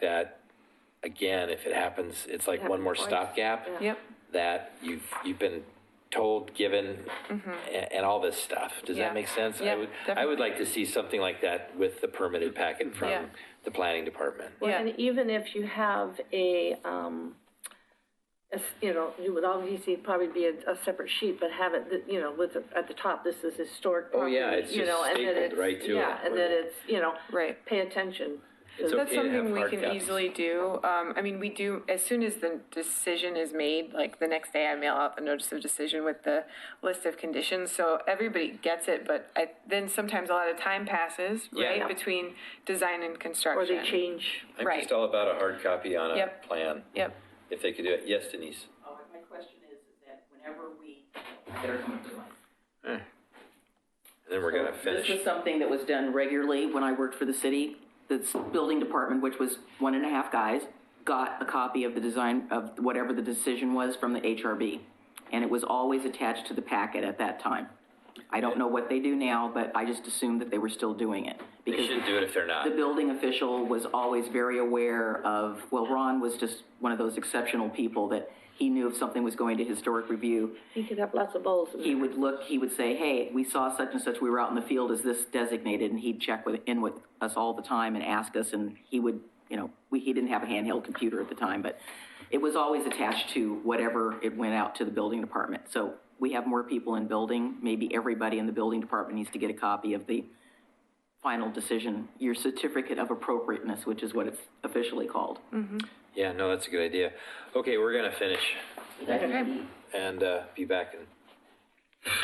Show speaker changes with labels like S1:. S1: that, again, if it happens, it's like one more
S2: Happened twice.
S1: stopgap.
S3: Yep.
S1: That you've, you've been told, given, a- and all this stuff. Does
S3: Mm-hmm. Yeah.
S1: that make sense? I
S3: Yeah,
S1: would, I
S3: definitely.
S1: would like to see something like that with the permitted packet
S3: Yeah.
S1: from the planning department.
S2: Well,
S3: Yeah.
S2: And even if you have a, um, a s- you know, you would obviously probably be a, a separate sheet, but have it, that, you know, with, the- at the top, this is historic
S1: Oh,
S2: property,
S1: yeah, it's
S2: you
S1: just
S2: know, and then
S1: stapled
S2: it's-
S1: right to
S2: Yeah,
S1: it,
S2: and then
S1: right.
S2: it's, you know.
S3: Right.
S2: Pay attention.
S1: It's
S3: That's
S1: okay to have
S3: something we
S1: hard
S3: can
S1: copies.
S3: easily do. Um, I mean, we do, as soon as the decision is made, like the next day I mail out the notice of decision with the list of conditions, so everybody gets it, but I, then sometimes a lot of time passes,
S1: Yeah.
S3: right, between design and
S2: Or they
S3: construction.
S2: change,
S1: I'm
S3: Right.
S1: just all about a hard copy on a
S3: Yep.
S1: plan,
S3: Yep,
S1: if they could do it. Yes, Denise?
S4: Oh, and my question is, is that whenever we, they're going to like-
S1: And then we're gonna finish.
S4: This was something that was done regularly when I worked for the city. The s- building department, which was one and a half guys, got a copy of the design of whatever the decision was from the HRB. And it was always attached to the packet at that time. I don't know what they do now, but I just assumed that they were still doing it.
S1: They
S4: because
S1: should do it if they're not.
S4: the building official was always very aware of, well, Ron was just one of those exceptional people that he knew if something was going to historic review,
S2: you could have lots of bowls.
S4: he would look, he would say, hey, we saw such and such, we were out in the field, is this designated? And he'd check with, in with us all the time and ask us, and he would, you know, we, he didn't have a handheld computer at the time, but it was always attached to whatever it went out to the building department. So we have more people in building, maybe everybody in the building department needs to get a copy of the final decision, your certificate of appropriateness, which is what it's officially called.
S1: Yeah, no, that's a good idea. Okay, we're gonna finish
S3: okay,
S1: and uh, be back in